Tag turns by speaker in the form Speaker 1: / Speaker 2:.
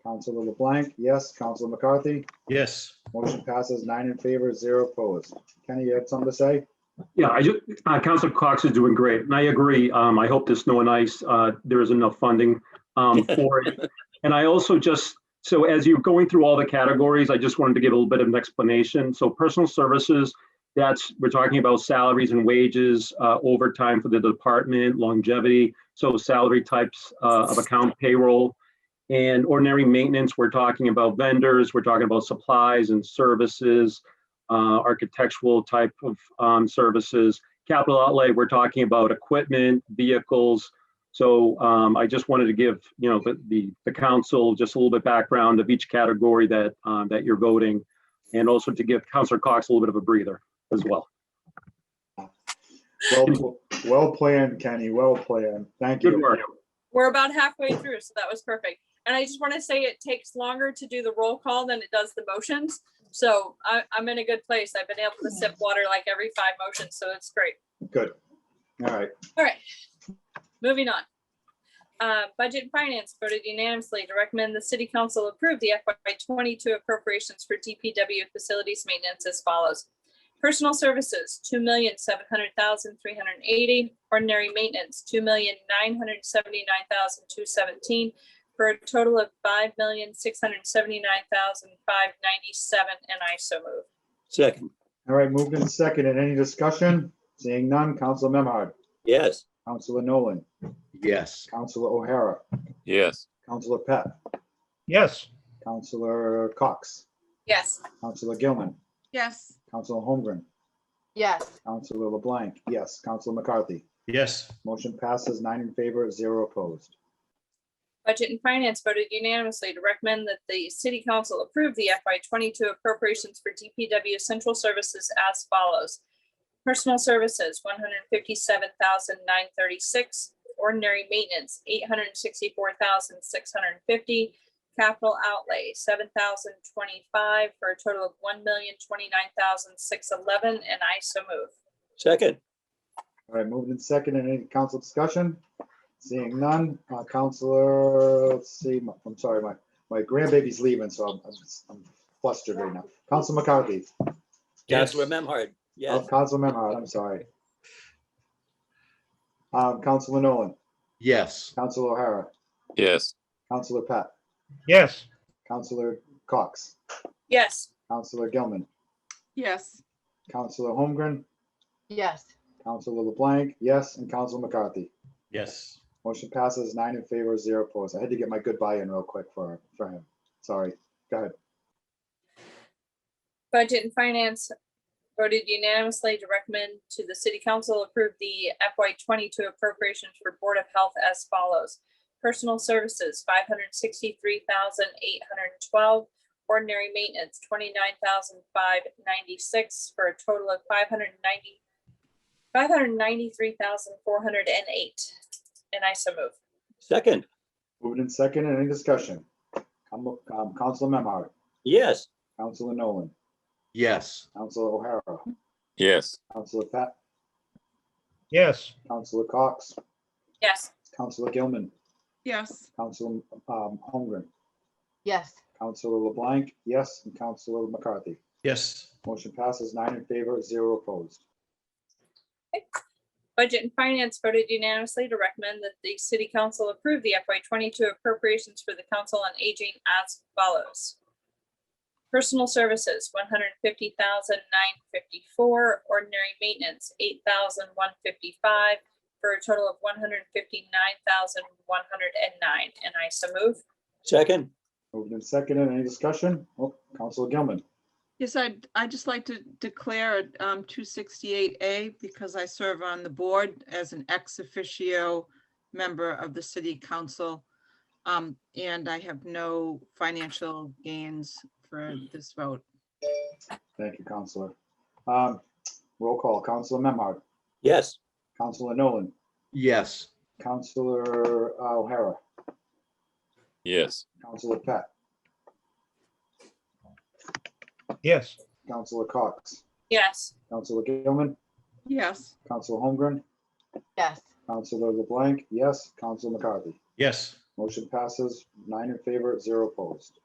Speaker 1: Counselor LeBlanc, yes. Counselor McCarthy,
Speaker 2: Yes.
Speaker 1: motion passes nine in favor, zero opposed. Kenny, you had something to say?
Speaker 3: Yeah, I just, uh, Counselor Cox is doing great, and I agree. Um, I hope the snow and ice, uh, there is enough funding, um, for it. And I also just, so as you're going through all the categories, I just wanted to give a little bit of an explanation. So personal services, that's, we're talking about salaries and wages, uh, overtime for the department, longevity, so salary types, uh, of account payroll. And ordinary maintenance, we're talking about vendors, we're talking about supplies and services, uh, architectural type of um, services. Capital outlay, we're talking about equipment, vehicles. So um, I just wanted to give, you know, the- the, the council just a little bit background of each category that, um, that you're voting. And also to give Counselor Cox a little bit of a breather as well.
Speaker 1: Well, well planned, Kenny, well planned. Thank
Speaker 3: Good
Speaker 1: you.
Speaker 3: work.
Speaker 4: We're about halfway through, so that was perfect. And I just want to say it takes longer to do the roll call than it does the motions. So I, I'm in a good place. I've been able to sip water like every five motions, so it's great.
Speaker 1: Good. All right,
Speaker 4: Moving on. Uh, Budget and Finance voted unanimously to recommend the City Council approve the FY twenty-two appropriations for DPW facilities maintenance as follows. Personal Services, two million seven hundred thousand three hundred and eighty. Ordinary Maintenance, two million nine hundred seventy-nine thousand two seventeen, for a total of five million six hundred seventy-nine thousand five ninety-seven, and I so move.
Speaker 5: Second,
Speaker 1: all right, moved and seconded. Any discussion? Seeing none, Counselor Memhard,
Speaker 5: yes.
Speaker 1: Counselor Nolan,
Speaker 2: Yes.
Speaker 1: Counselor O'Hara,
Speaker 6: yes,
Speaker 1: Counselor Pat,
Speaker 2: Yes.
Speaker 1: Counselor Cox,
Speaker 4: Yes.
Speaker 1: Counselor Gilman,
Speaker 7: yes,
Speaker 1: Counselor Holmgren,
Speaker 8: yes,
Speaker 1: Counselor LeBlanc, yes. Counselor McCarthy,
Speaker 2: Yes.
Speaker 1: motion passes nine in favor, zero opposed.
Speaker 4: Budget and Finance voted unanimously to recommend that the City Council approve the FY twenty-two appropriations for DPW Central Services as follows. Personal Services, one hundred fifty-seven thousand nine thirty-six. Ordinary Maintenance, eight hundred sixty-four thousand six hundred fifty. Capital Outlay, seven thousand twenty-five, for a total of one million twenty-nine thousand six eleven, and I so move.
Speaker 5: Second,
Speaker 1: All right, moved and seconded. Any council discussion? Seeing none, uh, Counselor, let's see, my- I'm sorry, my, my grandbaby's leaving, so I'm- I'm I'm flustered right now. Counselor McCarthy,
Speaker 5: Councilor Memhard, yes.
Speaker 1: Counselor Memhard, I'm sorry. Um, Counselor Nolan,
Speaker 2: Yes.
Speaker 1: Counselor O'Hara,
Speaker 6: yes,
Speaker 1: Counselor Pat,
Speaker 2: Yes.
Speaker 1: Counselor Cox,
Speaker 4: Yes.
Speaker 1: Counselor Gilman,
Speaker 7: yes,
Speaker 1: Counselor Holmgren,
Speaker 8: yes,
Speaker 1: Counselor LeBlanc, yes, and Counselor McCarthy.
Speaker 2: Yes.
Speaker 1: Motion passes nine in favor, zero opposed. I had to get my goodbye in real quick for, for him. Sorry. Go ahead.
Speaker 4: Budget and Finance voted unanimously to recommend to the City Council approve the FY twenty-two appropriations for Board of Health as follows. Personal Services, five hundred sixty-three thousand eight hundred twelve. Ordinary Maintenance, twenty-nine thousand five ninety-six, for a total of five hundred ninety, five hundred ninety-three thousand four hundred and eight. And I so move.
Speaker 5: Second,
Speaker 1: Moved in second, any discussion? Com- um, Counselor Memhard,
Speaker 5: yes.
Speaker 1: Counselor Nolan,
Speaker 2: Yes.
Speaker 1: Counselor O'Hara,
Speaker 6: yes,
Speaker 1: Counselor Pat,
Speaker 2: Yes.
Speaker 1: Counselor Cox,
Speaker 4: Yes.
Speaker 1: Counselor Gilman,
Speaker 7: yes,
Speaker 1: Counselor um, Holmgren,
Speaker 8: yes,
Speaker 1: Counselor LeBlanc, yes, and Counselor McCarthy.
Speaker 2: Yes.
Speaker 1: Motion passes nine in favor, zero opposed.
Speaker 4: Budget and Finance voted unanimously to recommend that the City Council approve the FY twenty-two appropriations for the Council on Aging as follows. Personal Services, one hundred fifty thousand nine fifty-four, Ordinary Maintenance, eight thousand one fifty-five, for a total of one hundred fifty-nine thousand one hundred and nine, and I so move.
Speaker 5: Second,
Speaker 1: Moved in second, any discussion? Oh, Counselor Gilman,
Speaker 7: yes, I'd, I'd just like to declare um two sixty-eight A because I serve on the board as an ex officio member of the city council. Um, and I have no financial gains for this vote.
Speaker 1: thank you, Counselor. Um, Roll call, Counselor Memhard,
Speaker 5: yes.
Speaker 1: Counselor Nolan,
Speaker 2: Yes.
Speaker 1: Counselor uh, O'Hara,
Speaker 6: yes,
Speaker 1: Counselor Pat,
Speaker 2: Yes.
Speaker 1: Counselor Cox,
Speaker 4: Yes.
Speaker 1: Counselor Gilman,
Speaker 7: Yes,
Speaker 1: Counselor Holmgren,
Speaker 8: yes,
Speaker 1: Counselor LeBlanc, yes, Counselor McCarthy.
Speaker 2: Yes.
Speaker 1: Motion passes nine in favor, zero opposed.